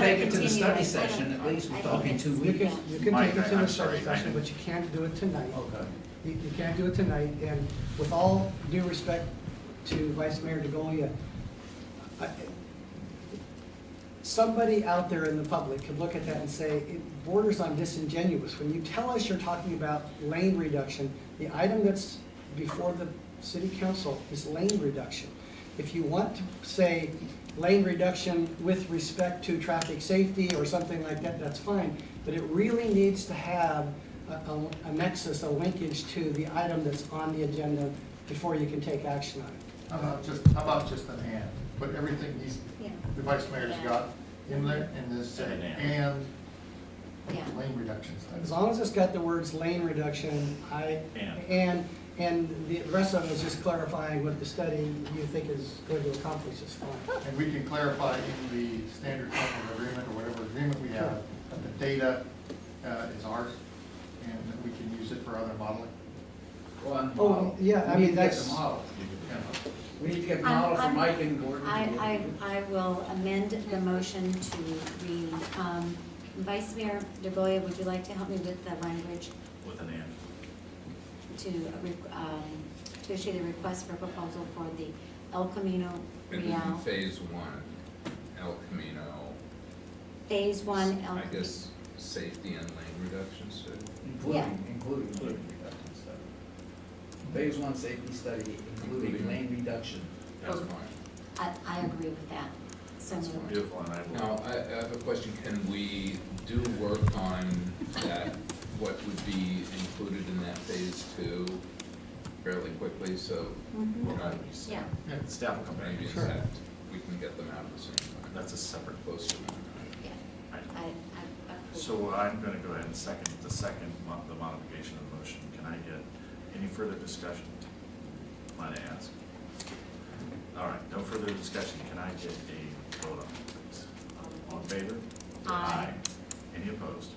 take it to the continue study it. session, at least I we're think talking it's- two You weeks. can, you can Mike, take it to I- the I'm study sorry, I- session, but you can't do it tonight. Okay. You, you can't do it tonight, and with all due respect to Vice Mayor DeGolia, I- somebody out there in the public could look at that and say, it borders on disingenuous. When you tell us you're talking about lane reduction, the item that's before the city council is lane reduction. If you want to say lane reduction with respect to traffic safety or something like that, that's fine. But it really needs to have a- a a nexus, a linkage to the item that's on the agenda before you can take action on it. How about just, how about just an and? Put everything he's, Yeah, the vice mayor's Yeah. got in there and then say, And an and yeah. lane reductions. As long as it's got the words lane reduction, I, And. and, and the rest of it is just clarifying what the study you think is going to accomplish is fine. And we can clarify in the standard supplement agreement or whatever agreement we have, that the data uh, is ours and that we can use it for other modeling. One Oh, model. yeah, I We mean, need to get that's- the model. Yeah. We need to get the I'm- model for I'm- Mike and Gordon. I, I, I will amend the motion to read, um, Vice Mayor DeGolia, would you like to help me with the language With an and. to, re- um, to issue the request for proposal for the El Camino It was in Real, phase one, El Camino. Phase One El. I guess, safety and lane reductions, so. Yeah. Including, including lane reduction study. Phase one safety study, including Including. lane reduction. that's Oh. fine. I, I agree with that, so moved. Beautiful, and I will. Now, I, I have a question, can we do work on that, what would be included in that phase two fairly quickly, so Mhm. we're not, Yeah, Staff will come back. maybe in Sure. fact, we can get them out at the same time. That's a separate. Close to one time. yeah, item. I, I approve. So I'm gonna go ahead and second, the second, mo- the modification of the motion. Can I get any further discussion? Might I ask? All right, no further discussion. Can I get a vote on it, please? All in favor? Aye. Any opposed?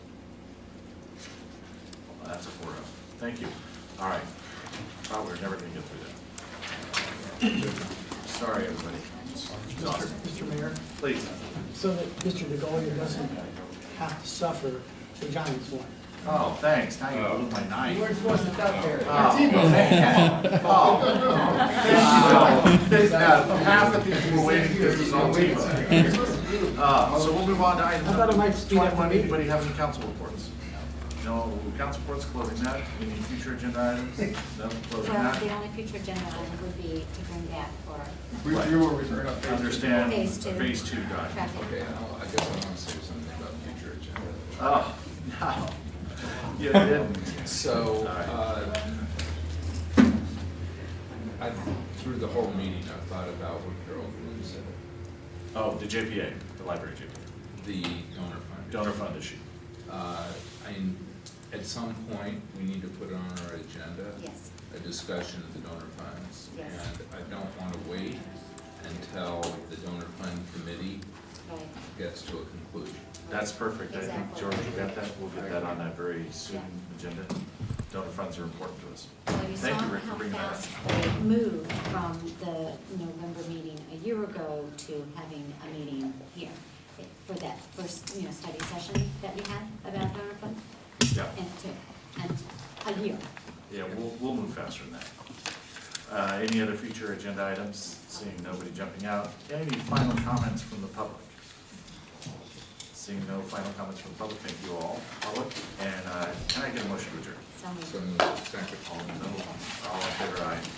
Well, That's a four oh. Thank you. All right. Thought we were never gonna get through that. Sorry, everybody. Exhausted. Mr. Mayor, Please. so that Mr. DeGolia doesn't have to suffer the Giants one. Oh, thanks. Now you blew my night. You weren't supposed to duck there. Oh, man. Oh. Now, Half the people were waiting because it was on TiVo. Uh, So we'll move on to item I thought it might speed up the twenty-one. meeting. Anybody have any council reports? No, council reports closing that. Any future agenda items? No, closing Well, the that. only future agenda item would be to bring back for Review or return on phase. Understand, Phase two. phase two guy. traffic. Okay, I'll- I guess I wanna say something about future agenda. Oh, no. You didn't. So, All right. uh, I, through the whole meeting, I thought about what Carol Bloom said, Oh, the JPA, the library JPA, the donor fund. donor fund issue. Uh, I, at some point, we need to put on our agenda Yes, a discussion of the donor funds. Yes. And I don't wanna wait until the donor fund committee right, gets to a conclusion. That's perfect. I think, Exactly. George, you got that. We'll get that on that very soon agenda. Donor funds are important to us. Well, you saw Thank you, Rick, for how bringing that up. fast they moved from the November meeting a year ago to having a meeting here for that first, you know, study session that we had about donor funds, Yeah, and to, and a year. yeah, we'll, we'll move faster than that. Uh, any other future agenda items? Seeing nobody jumping out. Any final comments from the public? Seeing no final comments from the public, thank you all, public. And, uh, can I get a motion to adjourn? So moved. So, second. All in, all in favor, aye.